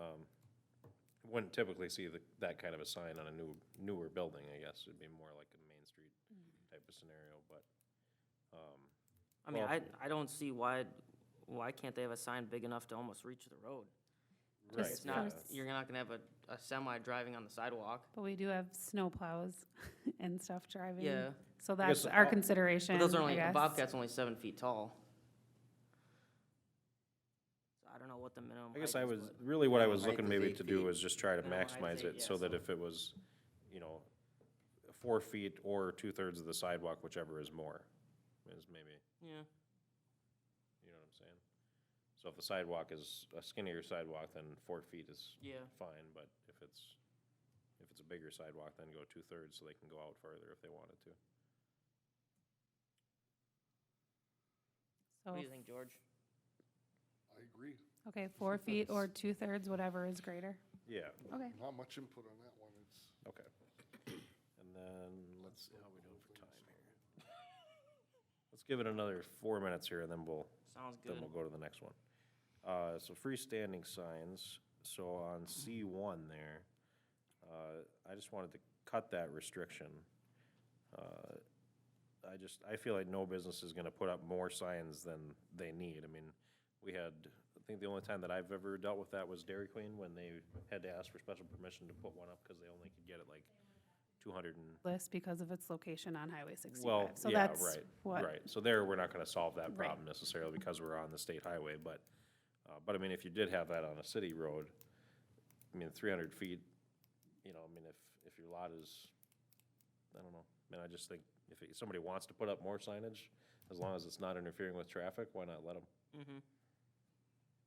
um, wouldn't typically see the, that kind of a sign on a new, newer building, I guess. It'd be more like a Main Street type of scenario, but, um, I mean, Well- I, I don't see why, why can't they have a sign big enough to almost reach the road? right, It's not, yeah. you're not gonna have a, a semi driving on the sidewalk. But we do have snow plows and stuff driving. Yeah, uh, So guess that's our all- consideration, but those are I only, a guess. Bobcat's only seven feet tall. So I don't know what the minimum I height is. guess I was, but- really what I Yeah, was height looking is maybe eight to do feet. was just try to Minimum height's maximize eight, it so yeah, that so- if it was, you know, four feet or two-thirds of the sidewalk, whichever is more, is maybe, Yeah. you know what I'm saying? So if the sidewalk is a skinnier sidewalk, then four feet is Yeah, fine, but if it's, if it's a bigger sidewalk, then go two-thirds so they can go out further if they wanted to. So, Oh. what do you think, George? I agree. okay, four feet or two-thirds, whatever is greater. Yeah, Okay. Not much input on that one. It's, okay. And then, let's see how we do for time here. Let's give it another four minutes here and then we'll Sounds then good. we'll go to the next one. Uh, so freestanding signs, so on C one there, uh, I just wanted to cut that restriction. Uh, I just, I feel like no business is gonna put up more signs than they need, I mean, we had, I think the only time that I've ever dealt with that was Dairy Queen, when they had to ask for special permission to put one up, cause they only could get it like two hundred and List because of its location on Highway well, sixty-five. So yeah, that's right, what- right. So there, we're not gonna solve that Right. problem necessarily because we're on the state highway, but, uh, but I mean, if you did have that on a city road, I mean, three hundred feet, you know, I mean, if, if your lot is, I don't know, I mean, I just think if it- somebody wants to put up more signage, as long as it's not interfering with traffic, why not let them? Mm-hmm.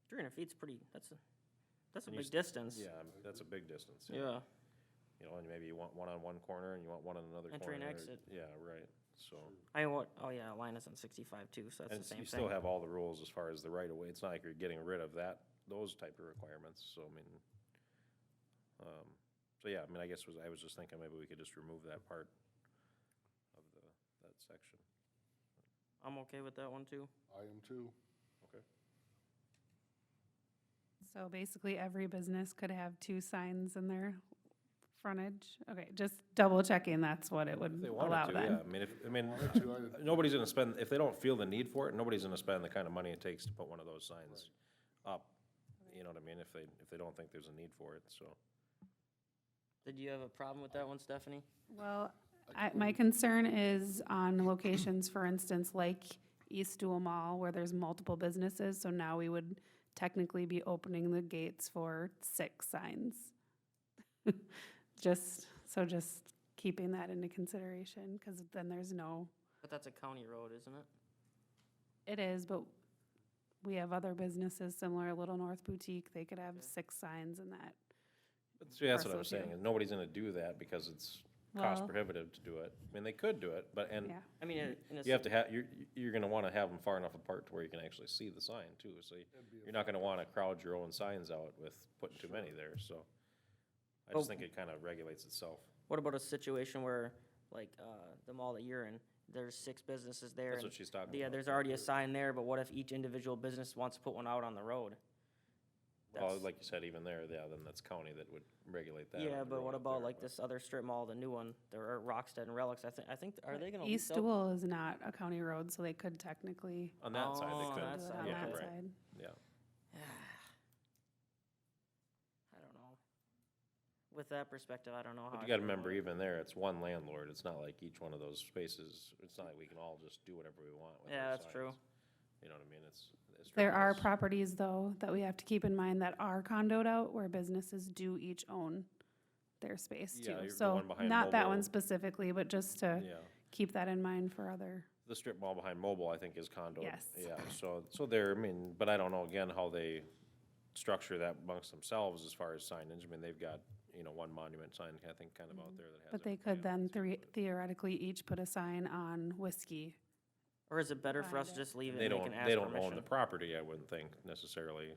Three hundred feet's pretty, that's a, that's a And you big s- distance. Yeah, I mean, that's a big distance. yeah. Yeah, You know, and maybe you want one on one corner and you want one on another corner. Entry and or- exit. Yeah, right, so. I, mean, what, oh yeah, Alina's on sixty-five too, so And that's the s- same you thing. still have all the rules as far as the right of way. It's not like you're getting rid of that, those type of requirements, so I mean. Um, so yeah, I mean, I guess was, I was just thinking maybe we could just remove that part of the, that section. I'm okay with that one too. I am too. So basically, every business could have two signs in their frontage. Okay, just double checking, that's what it would If they allow wanted to, yeah, then. I mean, if, I mean, Wanted to, I'd- nobody's gonna spend, if they don't feel the need for it, nobody's gonna spend the kind of money it takes to put one of those signs up. You know what I mean? If they, if they don't think there's a need for it, so. Did you have a problem with that one, Stephanie? Well, I, my concern is on locations, for instance, like East Dual Mall, where there's multiple businesses, so now we would technically be opening the gates for six signs. Just, so just keeping that into consideration, because then there's no, But that's a county road, isn't it? it is, but we have other businesses similar, Little North Boutique, they could have six signs in that. See, that's what parcel I'm saying, too. and nobody's gonna do that because it's cost Well- prohibitive to do it. I mean, they could do it, but, and Yeah, I mean, in in a. you have to have, you're, you're gonna wanna have them far enough apart to where you can actually see the sign too, so you- you're not gonna wanna crowd your own signs out with putting too many there, so. I just Oh. think it kinda regulates itself. What about a situation where, like, uh, the mall that you're in, there's six businesses there, That's and, what she's talking about. yeah, there's already a sign there, but what if each individual business wants to put one out on the road? Well, That's- like you said, even there, yeah, then that's county that would regulate that. Yeah, on the but road what up about there, like but- this other strip mall, the new one, there are Rockstead and Relics, I think, I think, are they gonna lease East out? Dual is not a county road, so they could technically On that side, Oh, they do could, that it side, on yeah, that right, side. yeah. I don't know. With that perspective, I don't know how. But I you gotta feel about remember, it. even there, it's one landlord, it's not like each one of those spaces, it's not like we can all just do whatever we want with Yeah, our that's signs. true. You know what I mean, it's. it's There are ridiculous. properties, though, that we have to keep in mind that are condoed out where businesses do each own their space Yeah, you're- too. the So, one behind not that Mobil. one specifically, but just to Yeah. keep that in mind for other, The strip mall behind Mobile, I think, is condo. Yes. Yeah, so, so there, I mean, but I don't know again how they structure that amongst themselves as far as signage. I mean, they've got, you know, one monument sign, I think, kind of out there that has. but they everything could on then it, too, thre- theoretically each put a sign on whiskey. Or is it better for us to Find just but leave it They and they don't, can ask they don't own the permission? property, I wouldn't think necessarily.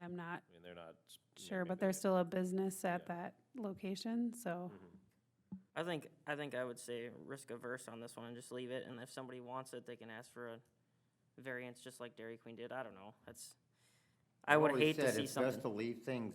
I I'm not mean, they're not. s- you know, sure, maybe but there's they- Mm-hmm. still a business at Yeah. that location, so, I think, I think I would say risk averse on this one and just leave it, and if somebody wants it, they can ask for a variance, just like Dairy Queen did, I don't know, that's. I I've would always hate to said see it's something. Best to leave things